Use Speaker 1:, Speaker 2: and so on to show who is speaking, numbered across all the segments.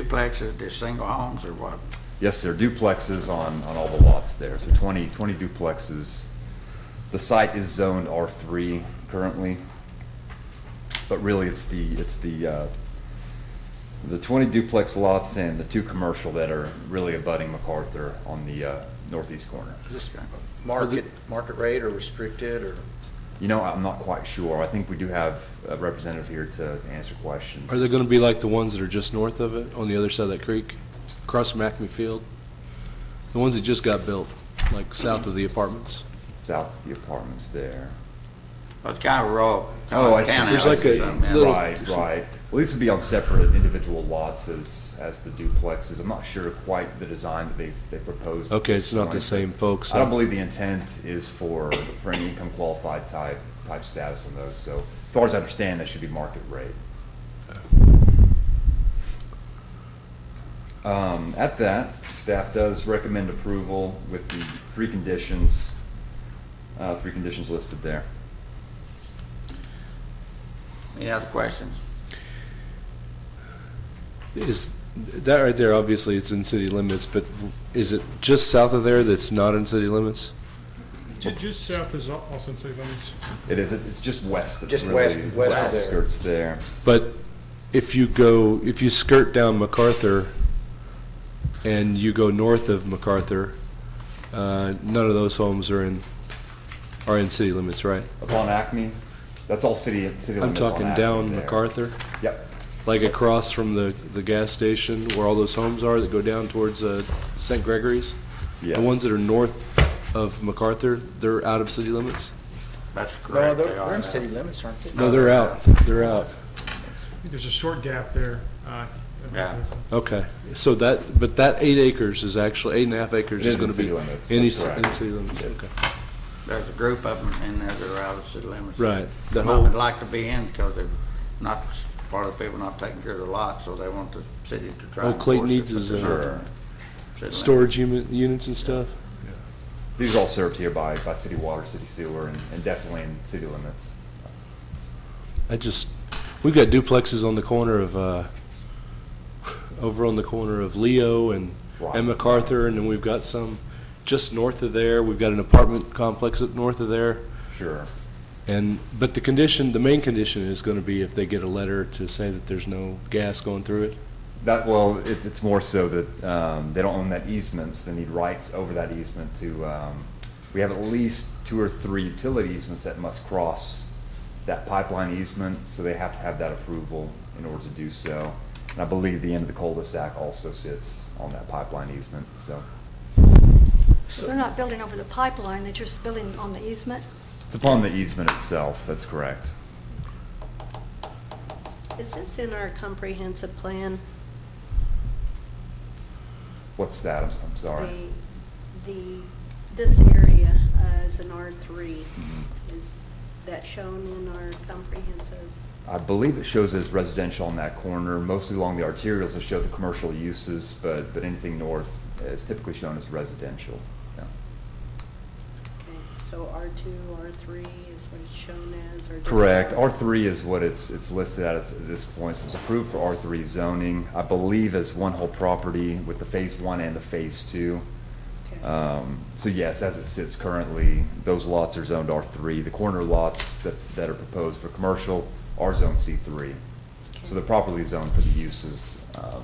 Speaker 1: duplexes, they're single homes or what?
Speaker 2: Yes, there are duplexes on, on all the lots there, so 20 20 duplexes. The site is zoned R3 currently, but really, it's the, it's the, uh, the 20 duplex lots and the two commercial that are really abutting MacArthur on the uh, northeast corner.
Speaker 3: Is this market, market rate or restricted or?
Speaker 2: You know, I'm not quite sure, I think we do have a representative here to to answer questions.
Speaker 4: Are they going to be like the ones that are just north of it, on the other side of that creek, across from Acme Field? The ones that just got built, like south of the apartments?
Speaker 2: South of the apartments there.
Speaker 1: Well, It's kind of rural.
Speaker 2: Oh, I see.
Speaker 1: Townhouse
Speaker 4: There's like
Speaker 1: or
Speaker 4: a
Speaker 1: something, yeah.
Speaker 4: little-
Speaker 2: Right, right. Well, these would be on separate individual lots as, as the duplexes. I'm not sure quite the design that they've, they proposed. at
Speaker 4: Okay,
Speaker 2: this
Speaker 4: it's not the
Speaker 2: point.
Speaker 4: same folks.
Speaker 2: I don't believe the intent is for, for any income qualified type, type status on those. So as far as I understand, that should be market rate. Um, at that, staff does recommend approval with the three conditions, uh, three conditions listed there.
Speaker 1: Any other questions?
Speaker 4: Is, that right there, obviously, it's in city limits, but is it just south of there that's not in city limits?
Speaker 5: Ju- Just south is Al- Austin City Limits.
Speaker 2: It is, it's just west. that's
Speaker 3: Just
Speaker 2: really
Speaker 3: west- west of there.
Speaker 2: Skirts there.
Speaker 4: But if you go, if you skirt down MacArthur and you go north of MacArthur, uh, none of those homes are in, are in city limits, right?
Speaker 2: Upon Acme, that's all city, city
Speaker 4: I'm
Speaker 2: limits on
Speaker 4: talking
Speaker 2: Acme
Speaker 4: down
Speaker 2: there.
Speaker 4: MacArthur.
Speaker 2: Yep,
Speaker 4: Like across from the, the gas station where all those homes are that go down towards uh, St. Gregory's?
Speaker 2: Yes.
Speaker 4: The ones that are north of MacArthur, they're out of city limits?
Speaker 1: That's
Speaker 3: No,
Speaker 1: correct.
Speaker 3: they're,
Speaker 1: they are
Speaker 3: they're
Speaker 1: now.
Speaker 3: in city limits, aren't they?
Speaker 4: No, they're out, they're out.
Speaker 5: I think There's a short gap there. uh,
Speaker 1: Yeah.
Speaker 4: Okay, so that, but that eight acres is actually, eight and a half acres
Speaker 2: It
Speaker 4: is
Speaker 2: is in
Speaker 4: gonna be.
Speaker 2: city limits,
Speaker 4: any
Speaker 2: that's
Speaker 4: ci-
Speaker 2: correct.
Speaker 4: In city limits, okay.
Speaker 1: There's a group of them in there that are out of city limits.
Speaker 4: Right, that
Speaker 1: Some would
Speaker 4: whole-
Speaker 1: like to be in because they're not, part of the people not taking care of the lot, so they want the city to try.
Speaker 4: Oh,
Speaker 1: and
Speaker 4: Clayton
Speaker 1: force it,
Speaker 4: needs
Speaker 1: but
Speaker 4: his,
Speaker 1: they're not
Speaker 2: sure.
Speaker 1: in city limits.
Speaker 4: Storage unit, units and stuff?
Speaker 2: These are all served here by, by city water, city sewer, and, and definitely in city limits.
Speaker 4: I just, we've got duplexes on the corner of, uh, over on the corner of Leo and,
Speaker 2: Right.
Speaker 4: and MacArthur, and then we've got some just north of there. We've got an apartment complex up north of there.
Speaker 2: Sure,
Speaker 4: And, but the condition, the main condition is gonna be if they get a letter to say that there's no gas going through it.
Speaker 2: that, well, it, it's more so that, um, they don't own that easement, so they need rights over that easement to, um, we have at least two or three utility easements that must cross that pipeline easement, so they have to have that approval in order to do so. And I believe the end of the cul-de-sac also sits on that pipeline easement, so.
Speaker 6: So They're not building over the pipeline, they're just building on the easement.
Speaker 2: It's upon the easement itself, that's correct.
Speaker 7: Is this in our comprehensive plan?
Speaker 2: What's that? I'm, I'm sorry.
Speaker 7: The, the, this area uh, is an R3.
Speaker 2: Mm-hmm.
Speaker 7: Is that shown in our comprehensive?
Speaker 2: I believe it shows as residential on that corner, mostly along the arterials that show the commercial uses, but, but anything north is typically shown as residential. Yeah.
Speaker 7: Okay, so R2, R3 is what it's shown as, or just?
Speaker 2: Correct. R3 is what it's, it's listed at at this point. So it's approved for R3 zoning, I believe as one whole property with the phase one and the phase two.
Speaker 7: Okay.
Speaker 2: Um, So yes, as it sits currently, those lots are zoned R3. The corner lots that, that are proposed for commercial are zoned C3. So they're properly zoned for the uses, um,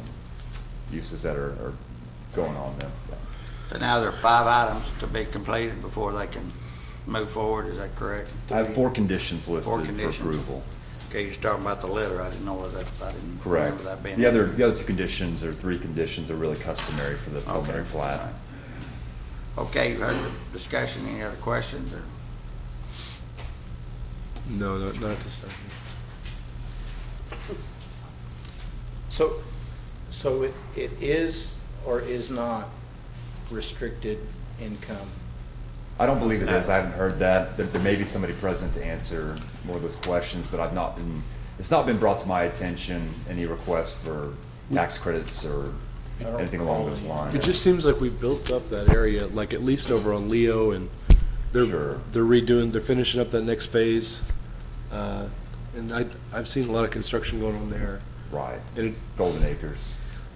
Speaker 2: uses that are, are going on there.
Speaker 1: So now there are five items to be completed before they can move forward, is that correct?
Speaker 2: I have four conditions listed
Speaker 1: Four
Speaker 2: for
Speaker 1: conditions.
Speaker 2: approval.
Speaker 1: Okay, you're talking about the letter, I didn't know what that, I didn't
Speaker 2: Correct.
Speaker 1: remember that being.
Speaker 2: The other, the other two conditions or three conditions are really customary for the
Speaker 1: Okay,
Speaker 2: preliminary
Speaker 1: all
Speaker 2: plat.
Speaker 1: right. Okay, you heard the discussion, any other questions, or,
Speaker 4: No, not, not this time.
Speaker 3: So, so it, it is or is not restricted income?
Speaker 2: I don't believe it is. I haven't heard that. There, there may be somebody present to answer more of those questions, but I've not been, it's not been brought to my attention, any request for tax credits or
Speaker 3: I don't
Speaker 2: anything along those
Speaker 3: recall
Speaker 2: lines.
Speaker 4: It just seems like we built up that area, like at least over on Leo and they're,
Speaker 2: Sure.
Speaker 4: they're redoing, they're finishing up that next phase. Uh, And I, I've seen a lot of construction going on there.
Speaker 2: Right.
Speaker 4: And it,
Speaker 2: Golden Acres.